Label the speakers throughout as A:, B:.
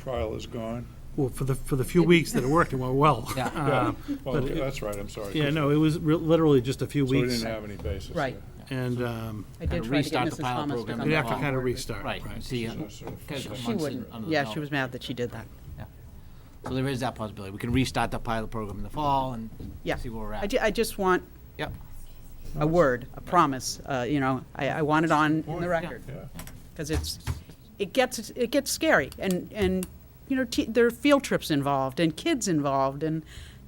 A: trial is gone.
B: Well, for the, for the few weeks that it worked, it went well.
C: Yeah.
B: Uh,
A: Well,
B: but-
A: that's right, I'm sorry.
B: Yeah, no, it was re- literally just a few
A: So we
B: weeks.
A: didn't have any basis. there.
D: Right.
B: And um,
D: I did
C: Kinda
D: try to get
C: restart the
D: Mrs.
C: pilot
D: Thomas to
C: program
D: come.
B: we'd have to
C: Well,
D: along.
B: kind of restart.
C: Right, you see, uh, kind of
D: She
C: months
D: wouldn't,
C: under the
D: yeah,
C: belt.
D: she was mad that she did that.
C: So there is that possibility. We can restart the pilot program in the fall and
D: Yeah.
C: see where we're
D: I
C: at.
D: ju- I just want
C: Yep,
D: a word, a promise, uh, you know, I, I want it on in the record.
A: Yeah.
D: Because it's, it gets, it gets scary, and, and, you know, te- there are field trips involved, and kids involved, and,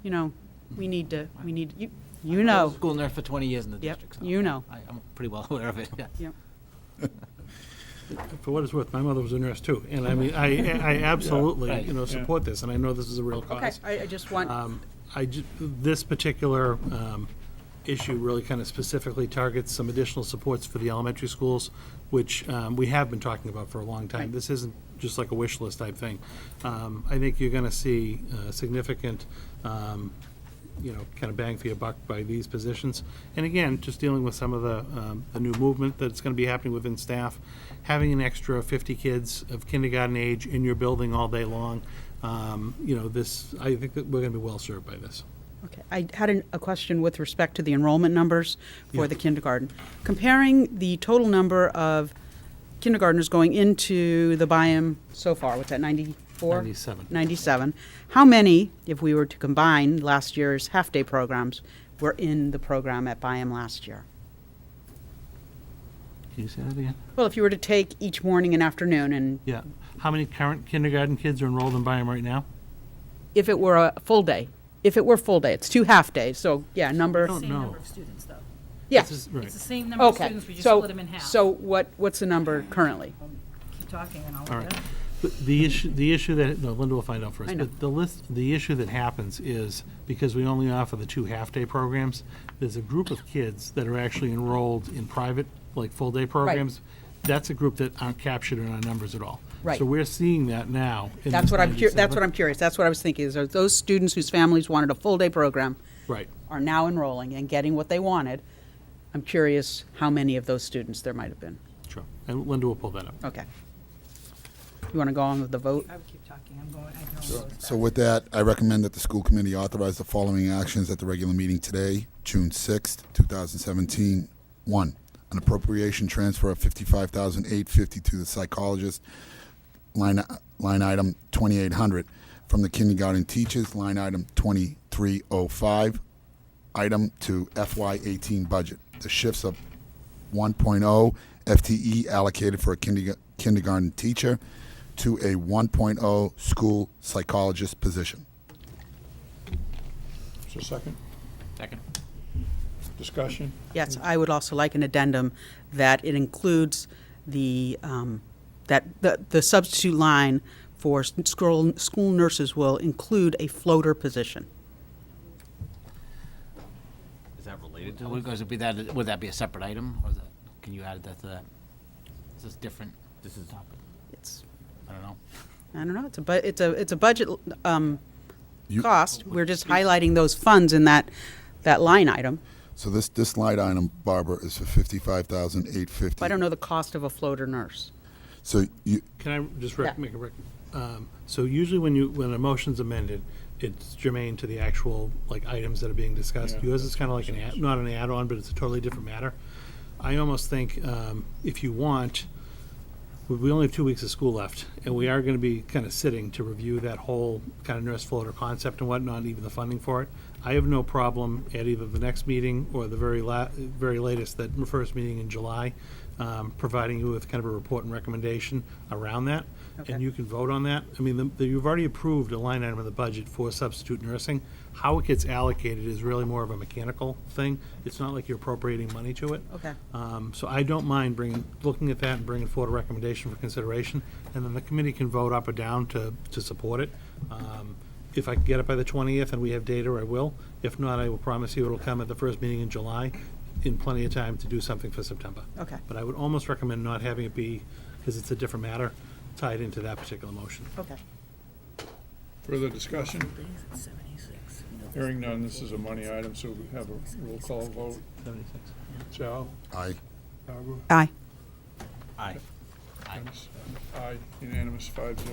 D: you know, we need to, we need, you, you
C: I was
D: know.
C: a School nurse for 20 years in the
D: Yep,
C: district. so
D: you know.
C: I- I'm pretty well aware of it, yeah.
D: Yeah.
B: For what it's worth, my mother was a nurse too. And I mean, I, I absolutely,
C: Right.
B: you know, support this, and I know this is a real
D: Okay,
B: cause.
D: I, I just want,
B: Um, I, ju- this particular um, issue really kind of specifically targets some additional supports for the elementary schools, which um, we have been talking about for a long time.
D: Right.
B: This isn't just like a wish list type thing. Um, I think you're going to see uh, significant, um, you know, kind of bang for your buck by these positions. And again, just dealing with some of the, um, the new movement that's going to be happening within staff, having an extra 50 kids of kindergarten age in your building all day long, um, you know, this, I think that we're going to be well served by this.
D: okay, I had an- a question with respect to the enrollment numbers for the kindergarten. Comparing the total number of kindergartners going into the biome so far, what's that, ninety-four?
B: 97.
D: 97. How many, if we were to combine last year's half-day programs, were in the program at Byam last year?
C: Can you say that again?
D: Well, if you were to take each morning and afternoon, and
B: Yeah. How many current kindergarten kids are enrolled in Byram right now?
D: if it were a full day, if it were full day, it's two half-days, so, yeah, number,
B: don't
E: Same
B: know.
E: number of students, though.
D: yeah,
B: This is-
E: It's the
B: Right.
E: same number of
D: okay.
E: students, we just
D: So-
E: split them in half.
D: So what, what's the number currently?
E: Keep talking and I'll
B: All
E: look
B: right.
E: it up.
B: The- The issue, the issue that, no, Linda will find out for us.
D: I know.
B: But The list, the issue that happens is, because we only offer the two half-day programs, there's a group of kids that are actually enrolled in private, like, full-day programs. That's a group that aren't captured in our numbers at all.
D: Right.
B: So we're seeing that now. in
D: That's
B: this
D: what I'm, cur- that's
B: 97.
D: what I'm curious, that's what I was thinking, is are those students whose families wanted a full-day program
B: Right.
D: are now enrolling and getting what they wanted? I'm curious how many of those students there might have been.
B: Sure. And Linda will pull that up.
D: Okay. You want to go on with the vote?
E: I would keep talking, I'm going, I know.
F: So with that, I recommend that the school committee authorize the following actions at the regular meeting today, June 6th, 2017. One, an appropriation transfer of 55850 to the psychologist, line, line item 2800, from the kindergarten teachers, line item 2305, item to FY18 budget. The shifts of 1.0 FTE E allocated for a kinderga- kindergarten teacher to a 1.0 school psychologist position.
A: So second,
C: Second.
A: discussion?
D: Yes, I would also like an addendum that it includes the, um, that the the substitute line for s- school school nurses will include a floater position.
C: Is that related to? Would would be that, would that be a separate item, or is that, can you add that to that? Is this different? This is.
D: It's,
C: I don't know.
D: I don't know, it's a, bu- it's a, it's a budget um,
F: You-
D: cost. We're just highlighting those funds in that, that line item.
F: So this, this line item, Barbara, is for 55,850.
D: I don't know the cost of a floater nurse.
F: So you,
B: Can I just
D: Yeah.
B: rec- make a rec- um, so usually when you, when a motion's amended, it's germane to the actual, like, items that are being discussed.
A: Yeah.
B: Yours is kind of like an add, not an add-on, but it's a totally different matter. I almost think, um, if you want, we- we only have two weeks of school left, and we are going to be kind of sitting to review that whole kind of nurse floater concept and whatnot, even the funding for it. I have no problem at either the next meeting or the very la, very latest, that first meeting in July, um, providing you with kind of a report and recommendation around that,
D: Okay.
B: and you can vote on that. I mean, the- the, you've already approved a line item in the budget for substitute nursing. How it gets allocated is really more of a mechanical thing. It's not like you're appropriating money to it.
D: Okay.
B: Um, So I don't mind bringing, looking at that and bringing forward a recommendation for consideration, and then the committee can vote up or down to, to support it. Um, If I can get it by the 20th and we have data, I will. If not, I will promise you it'll come at the first meeting in July, in plenty of time to do something for September.
D: Okay.
B: But I would almost recommend not having it be, because it's a different matter, tied into that particular motion.
D: Okay.
A: Further discussion? Hearing none, this is a money item, so we have a roll call vote.
B: 76.
A: Sal?
F: I,
A: Barbara?
D: Aye.
C: Aye.
A: Dennis? Aye, unanimous, five zero.